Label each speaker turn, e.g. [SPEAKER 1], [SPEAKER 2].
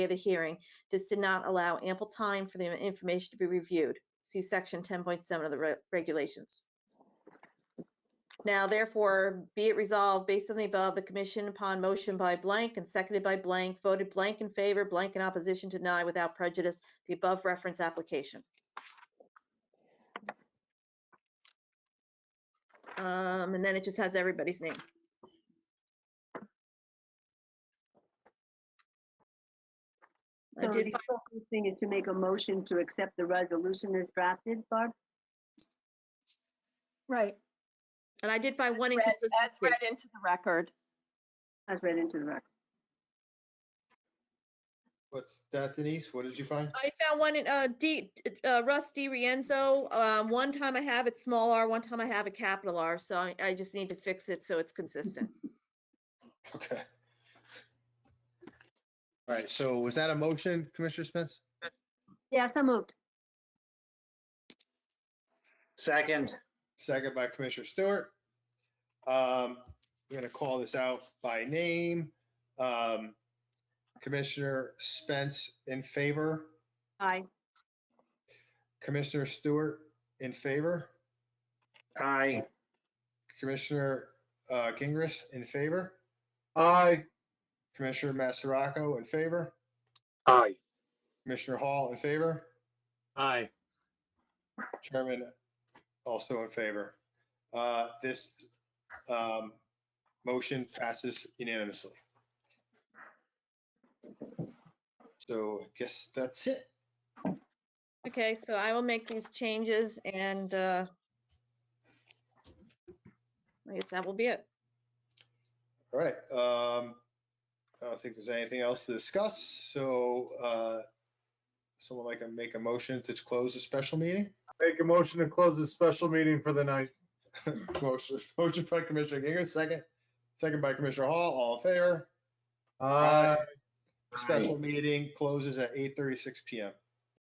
[SPEAKER 1] of the hearing. This did not allow ample time for the information to be reviewed. See section 10.7 of the re- regulations. Now therefore, be it resolved, based on the above, the commission upon motion by blank and seconded by blank, voted blank in favor, blank in opposition, deny without prejudice the above reference application. Um, and then it just has everybody's name. I
[SPEAKER 2] So
[SPEAKER 1] did
[SPEAKER 2] the appropriate thing is to make a motion to accept the resolution as drafted, Barb?
[SPEAKER 3] Right,
[SPEAKER 1] And I did find one
[SPEAKER 3] read- as read
[SPEAKER 1] inconsistency.
[SPEAKER 3] into the record.
[SPEAKER 2] As read into the record.
[SPEAKER 4] What's that Denise? What did you find?
[SPEAKER 1] I found one in, uh, D, uh, Russ D. Rienzo. Um, one time I have it small r, one time I have it capital R, so I, I just need to fix it so it's consistent.
[SPEAKER 4] Okay. All right, so was that a motion, Commissioner Spence?
[SPEAKER 2] Yeah, so moved.
[SPEAKER 5] Second,
[SPEAKER 4] Second by Commissioner Stewart. Um, We're going to call this out by name. Um, Commissioner Spence in favor,
[SPEAKER 2] Aye.
[SPEAKER 4] Commissioner Stewart in favor,
[SPEAKER 5] aye.
[SPEAKER 4] Commissioner uh, Gingrich in favor,
[SPEAKER 5] Aye.
[SPEAKER 4] Commissioner Massaraco in favor,
[SPEAKER 5] Aye.
[SPEAKER 4] Commissioner Hall in favor,
[SPEAKER 5] Aye.
[SPEAKER 4] Chairman also in favor. Uh, This um, motion passes unanimously. So I guess that's it.
[SPEAKER 1] Okay, so I will make these changes and, uh, I guess that will be it.
[SPEAKER 4] All right. um, I don't think there's anything else to discuss, so uh, someone like to make a motion to close the special meeting?
[SPEAKER 6] Make a motion to close this special meeting for the night.
[SPEAKER 4] Motion motion by Commissioner Gingrich, second, second by Commissioner Hall, all in favor?
[SPEAKER 6] Uh,
[SPEAKER 4] Special meeting closes at 8:36 PM.